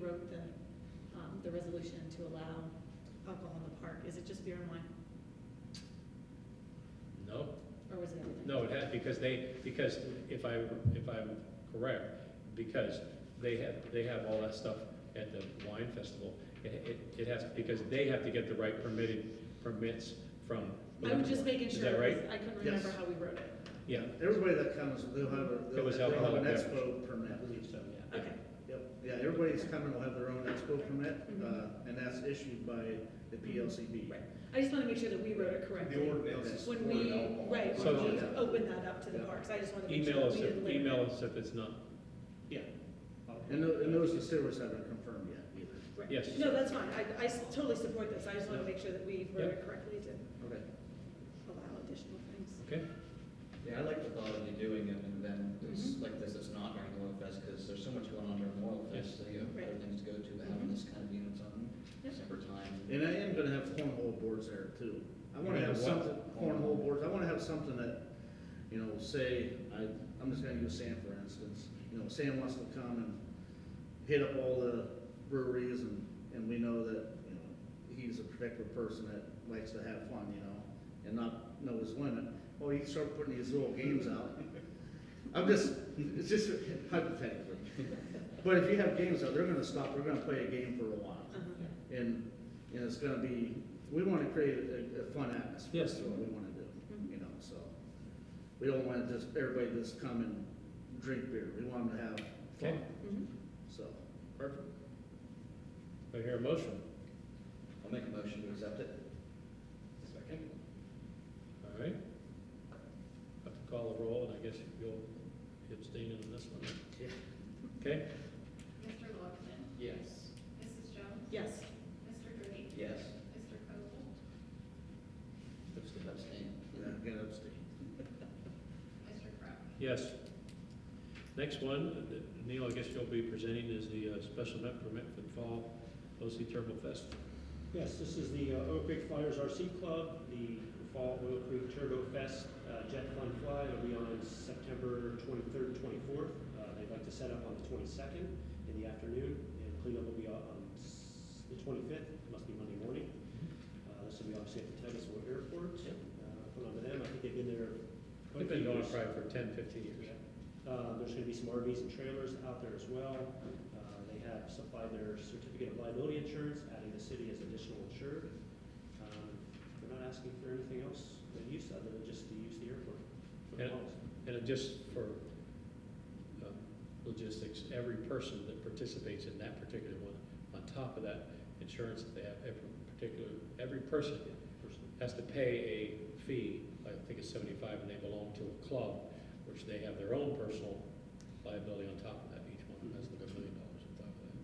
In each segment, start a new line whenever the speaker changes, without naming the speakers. wrote the, um, the resolution to allow alcohol in the park, is it just beer and wine,
No,
or was it everything?
no, it had, because they, because if I, if I'm correct, because they have, they have all that stuff at the wine festival. It, it, it has, because they have to get the right permitted permits from. the
I was
liquor
just
board.
making
Is
sure,
that right?
'cause I couldn't
Yes.
remember how we wrote it,
Yeah,
Everybody that comes, they'll have a,
It
they'll
was
they'll have an
alcoholic
expo
I
permit.
believe so, yeah.
okay,
Yep, yeah, everybody's coming will have their own expo permit,
Mm-hmm.
Mhm.
uh, and that's issued by the PLCB.
right, I just wanna make sure that we wrote it
The
correctly.
ordinance.
When we, right,
So-
when we open that up to the parks, I just wanna make sure
Email
that
us,
we
if
didn't. limit
email
it.
us if it's not. Yeah,
And tho- and those facilities haven't confirmed yet either.
Right.
yes.
No, that's fine, I, I s- totally support this, I just wanna make sure that we wrote
Yep.
it correctly to
Okay.
allow additional things.
okay,
Yeah, I like the thought of you doing it and then it's
Mm-hmm.
like this, it's not during the Oil Fest, because there's so much going on during Oil
Yes.
Fest, so you have other
Right. Mm-hmm.
things to go to, but having this kind of being its own
Yep.
separate time.
And I am gonna have cornhole boards there too. I wanna
You're
have
gonna have
something, cornhole boards, I wanna have something that, you know, say, I, I'm just gonna use Sam for instance. You know, Sam wants to come and hit up all the breweries and, and we know that, you know, he's a particular person that likes to have fun, you know, and not know his limit. Well, you start putting these little games out. I'm just, it's just hypothetically. But if you have games out, they're gonna stop, they're gonna play a game for a while.
Uh-huh.
And, and it's gonna be, we wanna create a, a fun atmosphere,
Yes.
is what we wanna do,
Mm-hmm.
you know, so. We don't want just, everybody just come and drink beer, we want them to have
okay,
Mhm.
fun, so.
perfect. Do I hear a motion?
I'll make a motion to accept it. Second.
All right. Have to call a roll, and I guess you'll abstain on this one.
Yeah.
Okay,
Mr. Lockton,
Yes.
Mrs. Jones,
Yes,
Mr. Gooding,
Yes.
Mr. Copel,
Abstain.
Abstain.
Yeah, get upstate.
Mr. Crowe.
yes. Next one, that Neil, I guess you'll be presenting is the uh, special event permit for the fall OC Turbo Fest.
Yes, this is the uh, Oak Creek Flyers RC Club, the Fall Oak Creek Turbo Fest uh, Jet Fun Fly. It'll be on September 23rd, 24th. Uh, They'd like to set up on the 22nd in the afternoon, and cleanup will be on s- the 25th, It must be Monday morning. Uh, This will be obviously at the Titusville Airport.
Mm-hmm. Yep.
Uh, Put on to them, I think they've been there. quite
We've
a
been going
few years.
probably for 10, 15 years.
Uh, There's going to be some RVs and trailers out there as well. Uh, They have supplied their certificate of liability insurance, adding the city as additional insured. Um, They're not asking for anything else than use, other than just to use the airport for the
Yeah.
calls.
And it just for uh, logistics, every person that participates in that particular one, on top of that insurance that they have, every particular, every person has to pay a fee, I think it's seventy-five, and they belong to a club, which they have their own personal liability on top of that, each one has like a million dollars on top of that.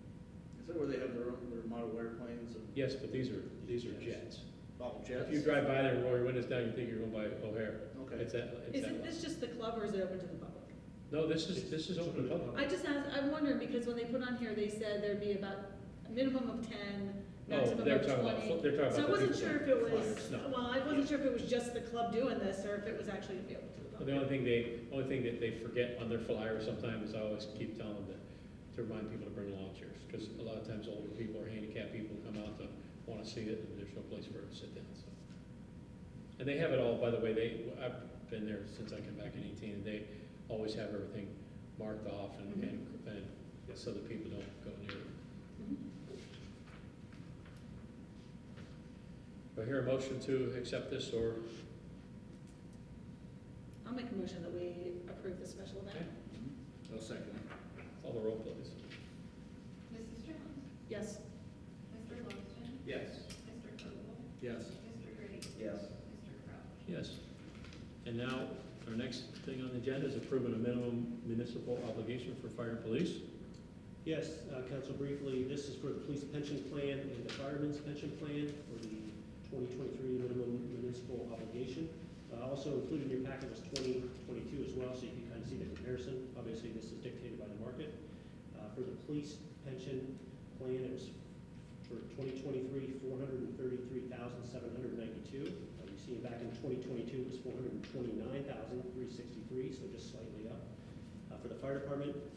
Is that where they have their own, their model airplanes and
Yes, but these are, these are jets.
model jets?
If you drive by there and roll your windows down, you think you're going by O'Hare.
Okay.
It's that, it's that.
isn't
level.
this just the club or is it open to the public?
No, this is, this is open public.
I just asked, I'm wondering, because when they put on here, they said there'd be about a minimum of ten,
Oh,
maximum
they're
of
talking about, fl-
twenty.
they're talking about.
So I
the
wasn't
people
sure
that-
if it was,
flyers, no.
well, I wasn't sure if it was just the club doing this, or if it was actually available to the
The
public.
only thing they, only thing that they forget on their flyer sometimes, I always keep telling them that, to remind people to bring lawn chairs, because a lot of times older people or handicapped people come out to want to see it, and there's no place for it to sit down, so. And they have it all, by the way, they, I've been there since I came back in eighteen, and they always have everything marked off and, and, and so that people don't go near it. Do I hear a motion to accept this, or,
I'll make a motion that we approve the special event.
Okay.
I'll second it.
call the roll, please?
Mrs. Jones,
Yes,
Mr. Lockton,
Yes.
Mr. Copel,
Yes.
Mr. Gooding,
Yes.
Mr. Crowe.
Yes. And now, our next thing on the agenda is approving a minimum municipal obligation for fire and police.
Yes, uh, council briefly, this is for the police pension plan and the fireman's pension plan for the 2023 minimum municipal obligation. Uh, Also included in your packet was 2022 as well, so you can kind of see the comparison. Obviously, this is dictated by the market. Uh, For the police pension plan, it was for 2023, 433,792. Uh, You see it back in 2022, it was 429,363, so just slightly up. Uh, For the fire department,